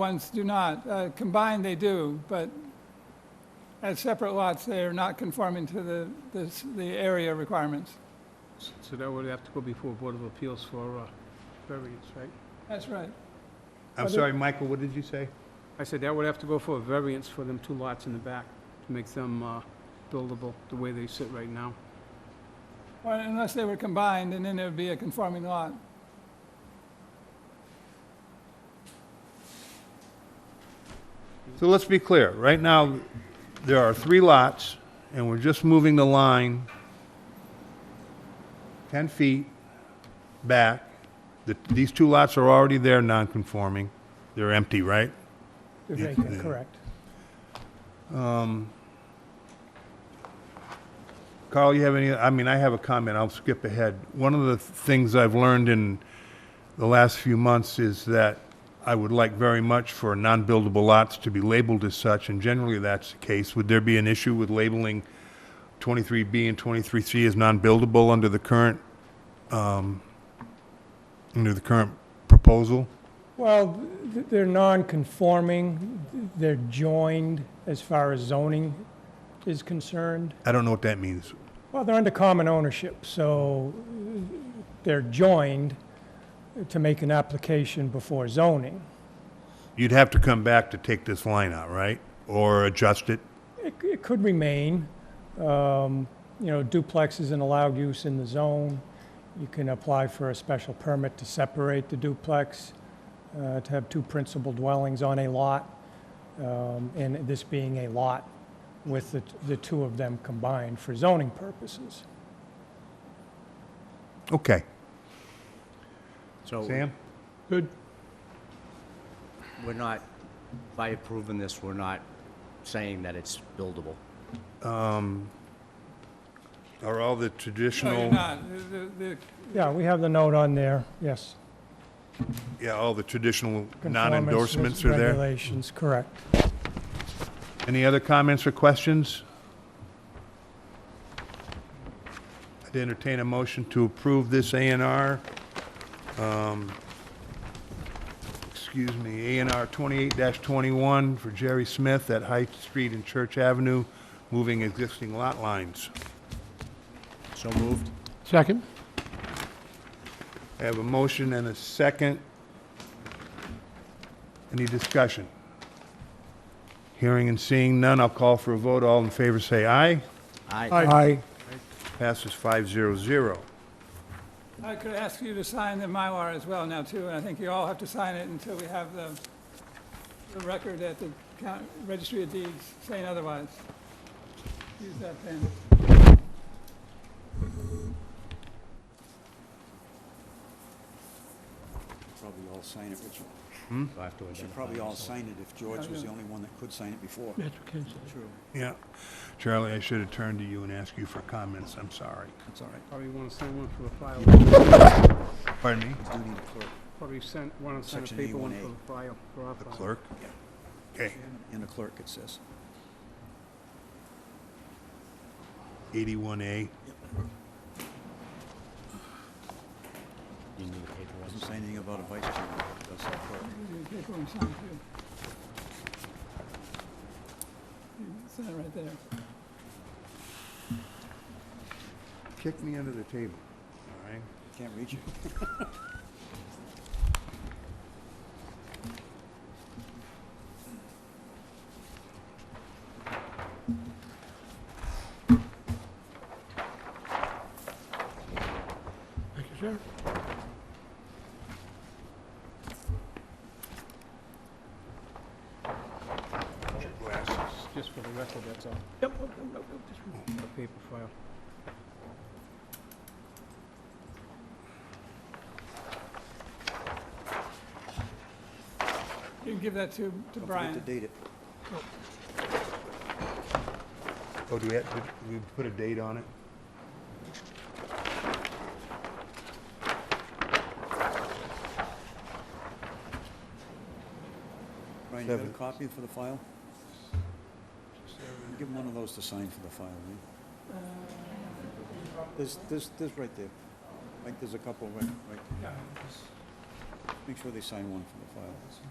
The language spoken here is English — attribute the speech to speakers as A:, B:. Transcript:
A: ones do not. Uh, Combined, they do, but as separate lots, they are not conforming to the, this- the area requirements.
B: S- So that would have to go before Board of Appeals for uh, variance, right?
A: That's right.
C: I'm sorry, Michael, what did you say?
B: I said that would have to go for a variance for them two lots in the back to make them uh, buildable the way they sit right now.
A: Or Unless they were combined, and then it would be a conforming lot.
C: So let's be clear, right now, there are three lots, and we're just moving the line 10 feet back. The- These two lots are already there, non-conforming. They're empty, right?
D: They're
C: Yeah,
D: vacant,
C: yeah.
D: correct.
C: Carl, you have any, I mean, I have a comment, I'll skip ahead. One of the things I've learned in the last few months is that I would like very much for non-buildable lots to be labeled as such, and generally that's the case. Would there be an issue with labeling 23B and 23C as non-buildable under the current, um, under the current proposal?
D: Well, th- they're non-conforming, they're joined as far as zoning is concerned.
C: I don't know what that means.
D: Well, they're under common ownership, so uh, they're joined to make an application before zoning.
C: You'd have to come back to take this line out, right? Or adjust it?
D: It, c- it could remain, um, you know, duplex is an allowed use in the zone. You can apply for a special permit to separate the duplex, uh, to have two principal dwellings on a lot. Um, and this being a lot with the, t- the two of them combined for zoning purposes.
C: Okay.
E: So
C: Sam?
D: Good.
E: we're not, by approving this, we're not saying that it's buildable.
C: Are all the
A: No,
C: traditional...
A: you're not. The- the- the-
D: Yeah, we have the note on there, yes.
C: Yeah, all the traditional
D: Conformance with
C: non-endorsements are there.
D: Regulations, correct.
C: Any other comments or questions? I'd entertain a motion to approve this A and R. um, Excuse me, A and R twenty-eight twenty-one for Jerry Smith at High Street and Church Avenue, moving existing lot lines.
E: So moved?
B: Second?
C: I have a motion and a second. Any discussion? Hearing and seeing none, I'll call for a vote. All in favor, say aye.
E: Aye.
C: Passes five zero zero.
A: I could ask you to sign the Mylar as well now, too, and I think you all have to sign it until we have the, the record at the count- registry of deeds saying otherwise. Use that pen.
F: Probably all sign it, Richard.
E: So I have to
F: We should
E: identify
F: probably all
E: myself.
F: sign it if George was the only one that could sign it before. True.
C: Yeah. Charlie, I should have turned to you and asked you for comments. I'm sorry.
F: That's all right.
B: Probably want to sign one for the file.
C: Pardon me?
F: Do need a clerk
B: Probably sent, want to sign a
F: Section
B: paper one for
F: A1A.
B: the file, for our
C: The
B: file.
C: clerk? Okay.
F: and a clerk, it says.
C: Eighty-one A.
E: You need a paper one.
F: Doesn't say anything about a vice chairman, but it does say clerk.
A: You take one, sign too. You Sign it right there.
C: Kick me under the table. All right.
F: Can't reach it.
C: Put your glasses.
B: Just for the record, that's all. A paper file.
A: You can give that to, to
F: Don't forget to
A: Brian.
F: date it.
C: Oh, do we have, did we put a date on it?
F: Brian, you got a
C: Seven.
F: copy for the file? Give him one of those to sign for the file, Lee. There's, there's, there's right there. Like, there's a couple right, right. Make sure they sign one for the file.